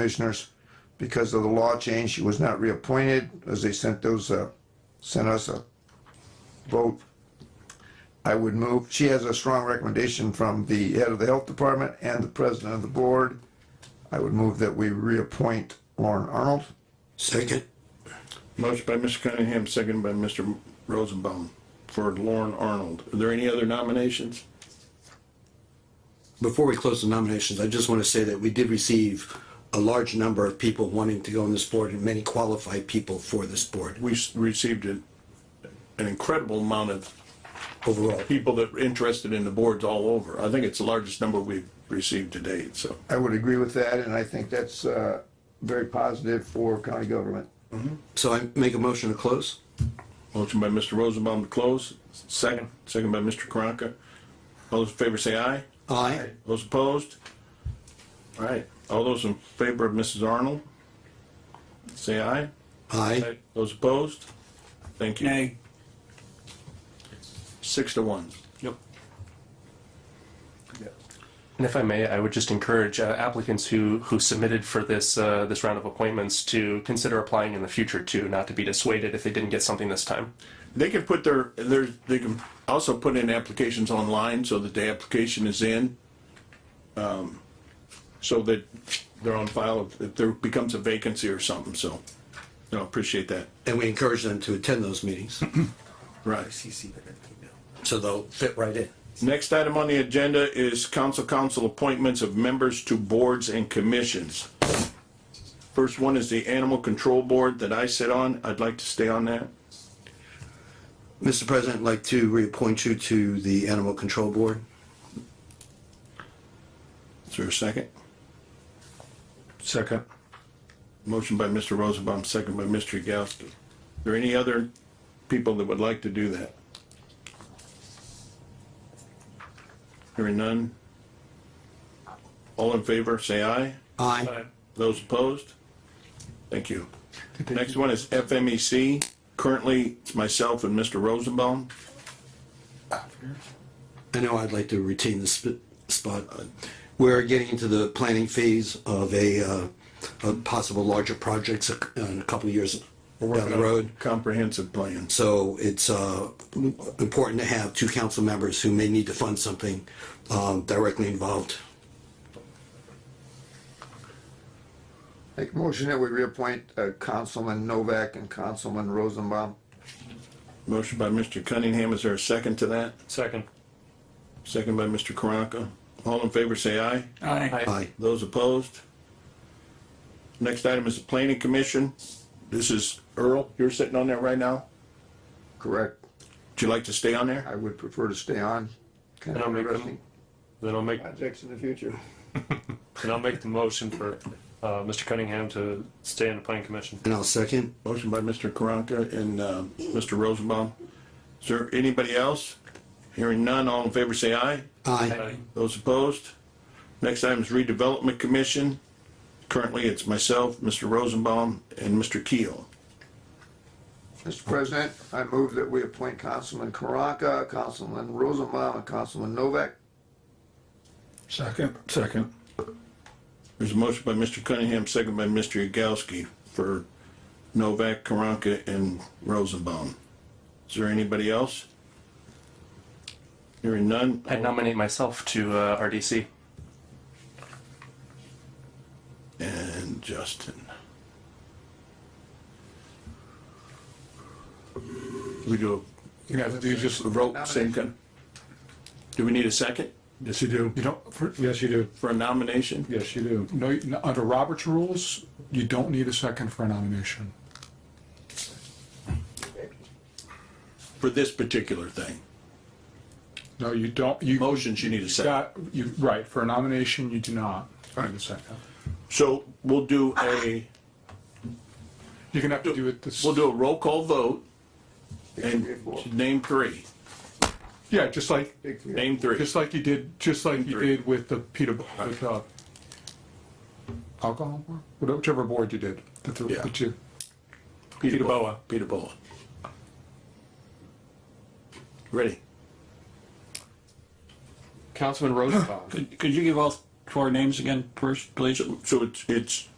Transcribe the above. commissioners. Because of the law change, she was not reappointed, as they sent those, uh, sent us a vote. I would move, she has a strong recommendation from the head of the health department and the president of the board. I would move that we reappoint Lauren Arnold. Second. Motion by Mr. Cunningham, seconded by Mr. Rosenbaum for Lauren Arnold. Are there any other nominations? Before we close the nominations, I just want to say that we did receive a large number of people wanting to go on this board and many qualified people for this board We s- received an an incredible amount of overall. people that were interested in the boards all over. I think it's the largest number we've received to date, so. I would agree with that, and I think that's, uh, very positive for county government. So I make a motion to close? Motion by Mr. Rosenbaum to close, second, second by Mr. Karanka. All those in favor say aye. Aye. Those opposed? All right, all those in favor of Mrs. Arnold? Say aye. Aye. Those opposed? Thank you. Six to one. Yep. And if I may, I would just encourage uh, applicants who, who submitted for this, uh, this round of appointments to consider applying in the future too, not to be dissuaded if they didn't get something this time. They can put their, their, they can also put in applications online so that the application is in. um, So that they're on file if there becomes a vacancy or something, so. No, appreciate that. And we encourage them to attend those meetings, Right. so they'll fit right in. Next item on the agenda is council council appointments of members to boards and commissions. First one is the Animal Control Board that I sit on. I'd like to stay on that. Mr. President, I'd like to reappoint you to the Animal Control Board. Is there a second? Second. Motion by Mr. Rosenbaum, second by Mr. Yagowski. Are there any other people that would like to do that? Hearing none? All in favor, say aye. Aye. Those opposed? Thank you. Next one is FMEC. Currently, it's myself and Mr. Rosenbaum. I know I'd like to retain the sp- spot. uh, We're getting into the planning phase of a, uh, a possible larger projects a- in a couple of years down the road. Comprehensive plan. So it's uh, important to have two council members who may need to fund something um, directly involved. Make a motion that we reappoint uh, Councilman Novak and Councilman Rosenbaum. Motion by Mr. Cunningham. Is there a second to that? Second. Second by Mr. Karanka. All in favor, say aye. Aye. Those opposed? Next item is the planning commission. This is Earl, you're sitting on there right now. Correct. Would you like to stay on there? I would prefer to stay on. Kind And I'll of make them- interesting Then I'll make, projects in the future. then I'll make the motion for, uh, Mr. Cunningham to stay in the planning commission. And I'll second. Motion by Mr. Karanka and uh, Mr. Rosenbaum. Is there anybody else? Hearing none, all in favor say aye. Aye. Those opposed? Next item is redevelopment commission. Currently, it's myself, Mr. Rosenbaum, and Mr. Keel. Mr. President, I move that we appoint Councilman Karanka, Councilman Rosenbaum, and Councilman Novak. Second. Second. There's a motion by Mr. Cunningham, second by Mr. Yagowski for Novak, Karanka, and Rosenbaum. Is there anybody else? Hearing none, I'd nominate myself to, uh, RDC. and Justin. We do. You have to do just. Roll, same kind. Do we need a second Yes, you do. You don't, for- Yes, you do. for a nomination? Yes, you do. no, you- under Robert's rules, you don't need a second for a nomination. For this particular thing? No, you don't, you. Motions, you need a second. Got, you, right, for a nomination, you do not need a second. So we'll do a, You're gonna have to do it this. we'll do a roll call vote Big four. and name three, Yeah, just like, Big three. name three. just like you did, just like you Three. did with the Peter, with, uh, alcohol, board? Whatever- whichever board you did. the three- Yeah. the two. Peter Boa. Peter Boa. Ready? Councilman Rosenbaum. Could, could you give all four names again first, please? So it's, it's